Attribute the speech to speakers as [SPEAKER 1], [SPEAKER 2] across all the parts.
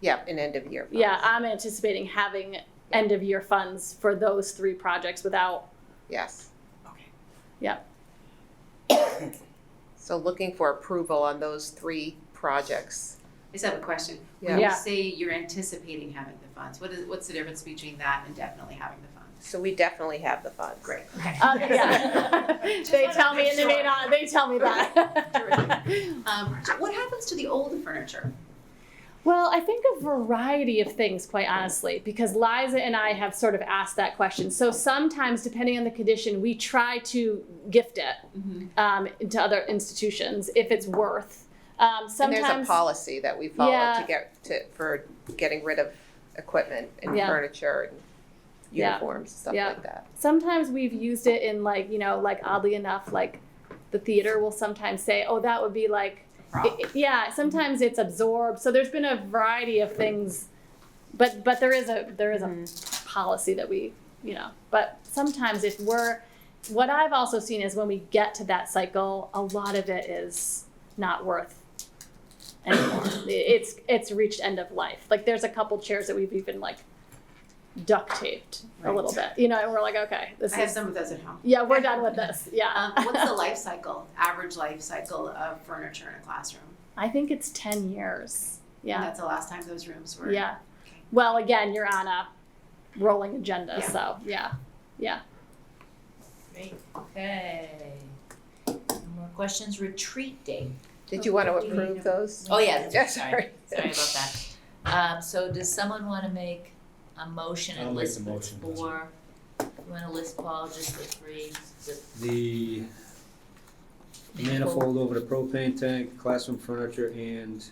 [SPEAKER 1] yeah, an end of year.
[SPEAKER 2] Yeah, I'm anticipating having end of year funds for those three projects without,
[SPEAKER 1] Yes.
[SPEAKER 3] Okay.
[SPEAKER 2] Yep.
[SPEAKER 1] So looking for approval on those three projects.
[SPEAKER 3] I just have a question. When
[SPEAKER 1] Yeah,
[SPEAKER 3] you
[SPEAKER 2] Yeah.
[SPEAKER 3] say you're anticipating having the funds, what is, what's the difference between that and definitely having the funds?
[SPEAKER 1] so we definitely have the funds.
[SPEAKER 3] Great, okay.
[SPEAKER 2] uh, yeah. They tell me and they may not, they tell me that.
[SPEAKER 3] Um, so what happens to the old furniture?
[SPEAKER 2] Well, I think a variety of things, quite honestly, because Liza and I have sort of asked that question. So sometimes, depending on the condition, we try to gift it um, to other institutions if it's worth. Um,
[SPEAKER 1] And
[SPEAKER 2] sometimes
[SPEAKER 1] there's a policy that we follow to
[SPEAKER 2] Yeah.
[SPEAKER 1] get, to, for getting rid of equipment and
[SPEAKER 2] Yeah.
[SPEAKER 1] furniture and
[SPEAKER 2] Yeah.
[SPEAKER 1] uniforms, stuff
[SPEAKER 2] Yeah.
[SPEAKER 1] like that.
[SPEAKER 2] sometimes we've used it in like you know like oddly enough like the theater will sometimes say oh that would be like
[SPEAKER 3] Prop.
[SPEAKER 2] it- it- yeah sometimes it's absorbed so there's been a variety of things but but there is a there is a
[SPEAKER 3] Mm-hmm.
[SPEAKER 2] policy that we you know but sometimes if we're what i've also seen is when we get to that cycle a lot of it is not worth anymore it's it's reached end of life like there's a couple chairs that we've even like duct taped a
[SPEAKER 3] Right.
[SPEAKER 2] little bit you know and we're like okay this
[SPEAKER 3] I have
[SPEAKER 2] is
[SPEAKER 3] some of those at home.
[SPEAKER 2] yeah we're done with this yeah
[SPEAKER 3] Um, what's the life cycle, average life cycle of furniture in a classroom?
[SPEAKER 2] i think it's 10 years
[SPEAKER 3] And
[SPEAKER 2] yeah
[SPEAKER 3] that's the last time those rooms were.
[SPEAKER 2] yeah well again you're on a rolling agenda
[SPEAKER 3] Yeah.
[SPEAKER 2] so yeah
[SPEAKER 4] Great, okay. No More questions, retreat date.
[SPEAKER 1] Did you want to
[SPEAKER 4] Okay.
[SPEAKER 1] approve those?
[SPEAKER 4] Oh, yeah,
[SPEAKER 1] Yeah,
[SPEAKER 4] that's- sorry, sorry about that. Um, so does someone wanna make a motion
[SPEAKER 5] I'll
[SPEAKER 4] and
[SPEAKER 5] make
[SPEAKER 4] list
[SPEAKER 5] the
[SPEAKER 4] the
[SPEAKER 5] motion, that's
[SPEAKER 4] four? You wanna list Paul, just the three, the
[SPEAKER 5] The manifold over the propane tank, classroom furniture, and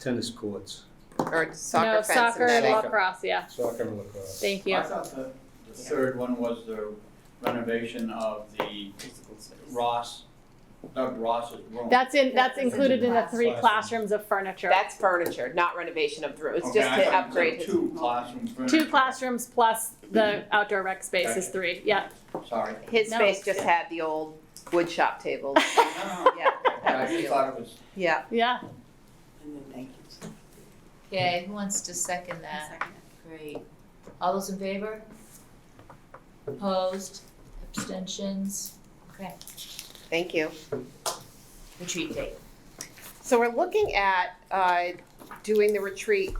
[SPEAKER 5] tennis courts,
[SPEAKER 1] Or soccer
[SPEAKER 2] no
[SPEAKER 1] fence
[SPEAKER 2] soccer
[SPEAKER 1] and netting.
[SPEAKER 5] lawn-
[SPEAKER 2] lacrosse yeah
[SPEAKER 5] soccer and lacrosse.
[SPEAKER 2] thank you
[SPEAKER 6] I thought the, the third one was the renovation of the Ross, Doug Ross's room.
[SPEAKER 2] that's in that's
[SPEAKER 4] That's
[SPEAKER 2] included in the three
[SPEAKER 5] classroom.
[SPEAKER 2] classrooms of furniture
[SPEAKER 1] That's furniture, not renovation of the room. It's
[SPEAKER 6] Okay,
[SPEAKER 1] just
[SPEAKER 6] Oh, I
[SPEAKER 1] to
[SPEAKER 6] thought you said
[SPEAKER 1] upgrade his.
[SPEAKER 6] Two classrooms.
[SPEAKER 2] two classrooms plus the outdoor rec space is three yeah
[SPEAKER 6] Sorry.
[SPEAKER 1] His
[SPEAKER 2] No,
[SPEAKER 1] space
[SPEAKER 2] it's
[SPEAKER 1] just
[SPEAKER 2] good.
[SPEAKER 1] had the old wood shop tables.
[SPEAKER 6] No,
[SPEAKER 1] Yeah,
[SPEAKER 6] no,
[SPEAKER 1] that
[SPEAKER 6] I
[SPEAKER 1] was the old-
[SPEAKER 6] just thought it was,
[SPEAKER 1] yeah.
[SPEAKER 2] yeah
[SPEAKER 4] Okay, who wants to second
[SPEAKER 3] One
[SPEAKER 4] that?
[SPEAKER 3] second.
[SPEAKER 4] Great. All those in favor? Opposed? Abstentions? Okay,
[SPEAKER 1] Thank you.
[SPEAKER 4] retreat date.
[SPEAKER 1] So we're looking at uh, doing the retreat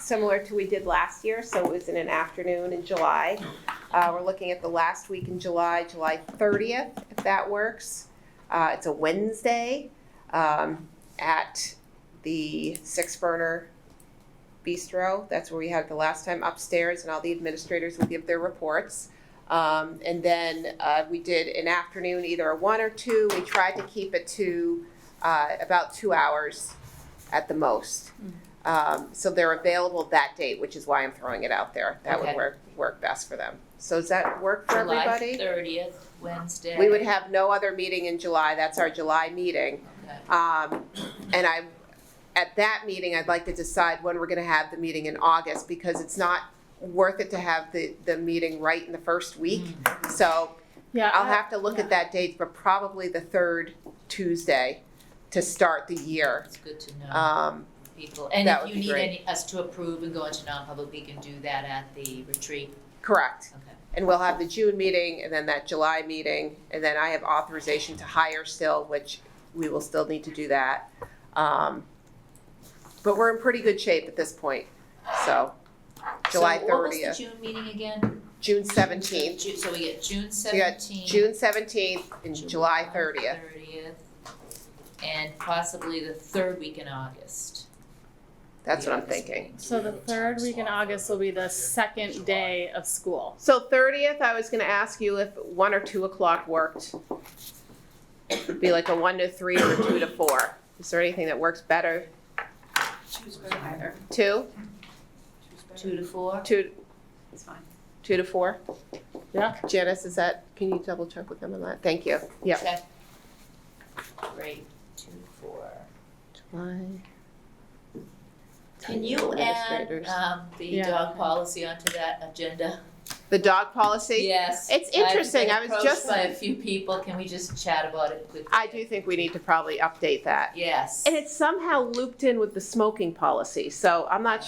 [SPEAKER 1] similar to we did last year, so it was in an afternoon in July. Uh, We're looking at the last week in July, July 30th, if that works. Uh, It's a Wednesday um, at the Six Burner Bistro. That's where we had it the last time upstairs, and all the administrators will give their reports. Um, And then uh, we did an afternoon, either a one or two. We tried to keep it to uh, about two hours at the most. Um, so they're available that date, which is why I'm throwing it out there. That would
[SPEAKER 4] Okay.
[SPEAKER 1] work, work best for them. So does that work for
[SPEAKER 4] July
[SPEAKER 1] everybody?
[SPEAKER 4] thirtieth, Wednesday.
[SPEAKER 1] We would have no other meeting in July. That's our July meeting.
[SPEAKER 4] Okay.
[SPEAKER 1] Um, and I, at that meeting, I'd like to decide when we're gonna have the meeting in August because it's not worth it to have the, the meeting right in the first week. So
[SPEAKER 2] Uh, yeah
[SPEAKER 1] I'll
[SPEAKER 2] I-
[SPEAKER 1] have to look at that date, but probably the third Tuesday to start the year.
[SPEAKER 4] It's good to know
[SPEAKER 1] Um,
[SPEAKER 4] people. And
[SPEAKER 1] that
[SPEAKER 4] if
[SPEAKER 1] would
[SPEAKER 4] you
[SPEAKER 1] be
[SPEAKER 4] need
[SPEAKER 1] great.
[SPEAKER 4] any, us to approve and go into non-public, we can do that at the retreat.
[SPEAKER 1] correct.
[SPEAKER 4] Okay.
[SPEAKER 1] And we'll have the June meeting and then that July meeting, and then I have authorization to hire still, which we will still need to do that. Um, but we're in pretty good shape at this point, so July
[SPEAKER 4] So what was the
[SPEAKER 1] thirtieth,
[SPEAKER 4] June meeting again?
[SPEAKER 1] June seventeenth,
[SPEAKER 4] Ju- So we get June
[SPEAKER 1] you got
[SPEAKER 4] seventeenth.
[SPEAKER 1] June seventeenth and July thirtieth.
[SPEAKER 4] And possibly the third week in August.
[SPEAKER 1] That's
[SPEAKER 4] The
[SPEAKER 1] what I'm
[SPEAKER 4] August
[SPEAKER 1] thinking.
[SPEAKER 4] meeting.
[SPEAKER 2] so the third week in august will be the second day of school
[SPEAKER 1] So thirtieth, I was gonna ask you if one or two o'clock worked. It'd Be like a one to three or a two to four. Is there anything that works better?
[SPEAKER 3] Choose either.
[SPEAKER 1] Two,
[SPEAKER 4] Two to four?
[SPEAKER 1] two,
[SPEAKER 3] It's fine.
[SPEAKER 1] two to four?
[SPEAKER 2] Yeah.
[SPEAKER 1] Janice, is that, can you double check with them on that? Thank you. Yeah.
[SPEAKER 4] Okay. Great, two to four. Can you add,
[SPEAKER 1] Administrators.
[SPEAKER 4] um, the
[SPEAKER 2] Yeah.
[SPEAKER 4] dog policy onto that agenda?
[SPEAKER 1] The dog policy?
[SPEAKER 4] Yes.
[SPEAKER 1] It's
[SPEAKER 4] I've been
[SPEAKER 1] interesting. I was just-
[SPEAKER 4] Approached by a few people, can we just chat about it quickly?
[SPEAKER 1] I do think we need to probably update that.
[SPEAKER 4] Yes.
[SPEAKER 1] And it's somehow looped in with the smoking policy, so I'm not